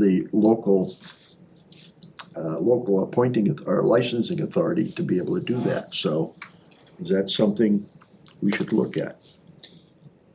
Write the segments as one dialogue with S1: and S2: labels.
S1: the local, uh, local appointing auth- or licensing authority to be able to do that, so is that something we should look at?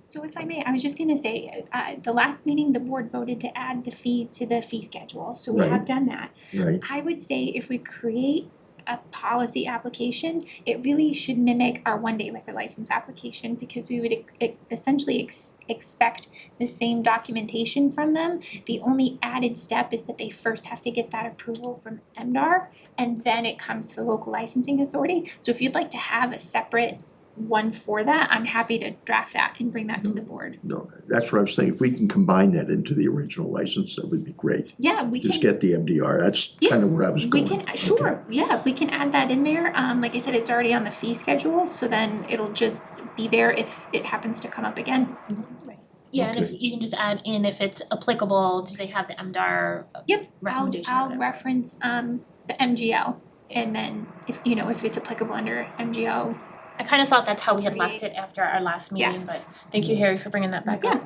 S2: So if I may, I was just gonna say, uh, the last meeting, the board voted to add the fee to the fee schedule, so we
S1: Right.
S2: have done that.
S1: Right,
S2: I would say if we create a policy application, it really should mimic our one-day liquor license application because we would ex- ex- essentially ex- expect the same documentation from them. The only added step is that they first have to get that approval from MDR and then it comes to the local licensing authority. So if you'd like to have a separate one for that, I'm happy to draft that and bring that to the board.
S1: no, that's what I'm saying, if we can combine that into the original license, that would be great.
S2: Yeah, we can.
S1: Just get the MDR, that's
S2: Yeah,
S1: kind of where I was
S2: We
S1: going.
S2: can, uh,
S1: Okay.
S2: sure, yeah, we can add that in there, um, like I said, it's already on the fee schedule, so then it'll just be there if it happens to come up again.
S3: Yeah, and if you can just add in if it's applicable, do they have the MDR
S2: Yep, I'll,
S3: recommendation or
S2: I'll
S3: whatever?
S2: reference, um, the MGL, and then if, you know, if it's applicable under MGL,
S3: I kind of thought that's how we had left it after our last
S2: Yeah.
S3: meeting, but thank you, Harry, for bringing that back up.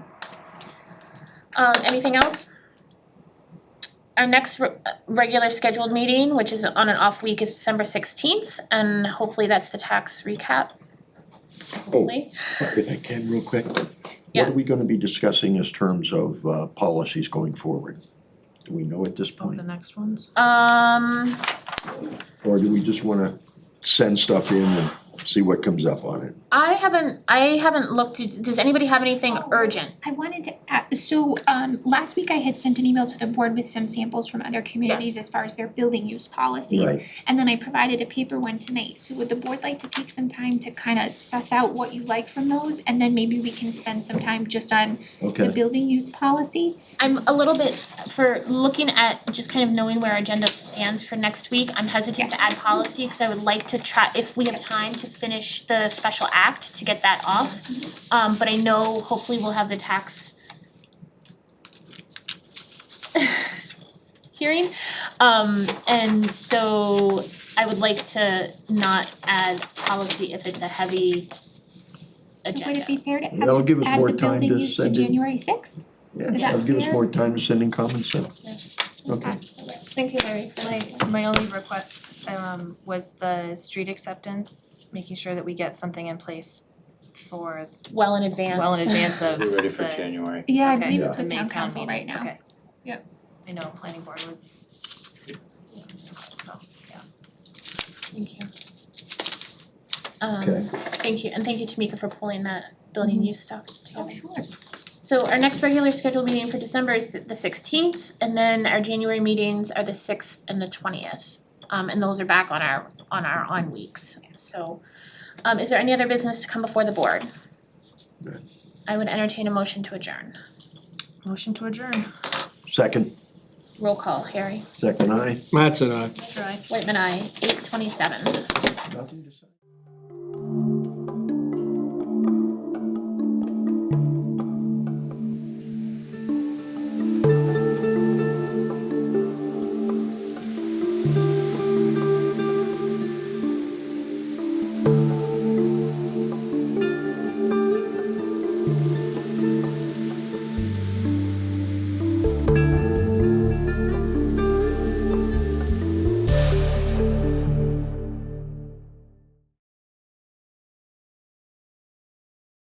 S3: Um, anything else? Our next re- uh, regular scheduled meeting, which is on an off week, is December sixteenth, and hopefully that's the tax recap. Hopefully.
S4: If I can, real quick,
S1: What
S3: Yeah.
S1: are we gonna be discussing as terms of uh policies going forward? Do we know at this
S5: Oh,
S1: point,
S5: the next ones?
S3: Um,
S1: or do we just wanna send stuff in and see what comes up on it?
S3: I haven't, I haven't looked, does anybody have anything
S2: Oh.
S3: urgent?
S2: I wanted to add, so, um, last week I had sent an email to the board with some samples from other communities as far as their building use policies.
S1: Right,
S2: And then I provided a paper one tonight, so would the board like to take some time to kind of suss out what you like from those? And then maybe we can spend some time just on the
S1: okay,
S2: building use policy?
S3: I'm a little bit for looking at just kind of knowing where our agenda stands for next week. I'm hesitant
S2: Yes.
S3: to add policy because I would like to try if we have time to finish the special act to get that off. Um, but I know hopefully we'll have the tax hearing. Um, and so I would like to not add policy if it's a heavy
S2: So would
S3: agenda.
S2: it be fair to
S1: that'll
S2: add,
S1: give us
S2: add
S1: more
S2: the
S1: time
S2: building
S1: to
S2: use to
S1: send in,
S2: January sixth?
S1: yeah,
S2: that
S1: that'll give us
S2: fair?
S1: more time to send in comments then. Okay,
S3: Thank you, Larry.
S5: My, my only request, um, was the street acceptance, making sure that we get something in place for,
S3: Well in advance.
S5: well in advance of the.
S6: We're ready for January.
S2: Yeah, I
S5: Okay.
S2: believe it's
S5: the
S2: with
S5: May
S2: town
S5: town
S2: council right
S5: meeting.
S2: now.
S5: Okay.
S2: Yep.
S5: I know, planning board was. So, yeah.
S3: Thank you. Um,
S1: Okay.
S3: thank you, and thank you Tamika for pulling that building use stuff together.
S2: Oh, sure.
S3: So our next regular scheduled meeting for December is the sixteenth, and then our January meetings are the sixth and the twentieth. Um, and those are back on our, on our on weeks, so, um, is there any other business to come before the board?
S1: No.
S3: I would entertain a motion to adjourn.
S5: Motion to adjourn.
S1: second,
S3: Roll call, Harry.
S1: second I.
S7: Matt's and I.
S5: Try.
S3: Whitman, I, eight twenty-seven.
S1: nothing to say.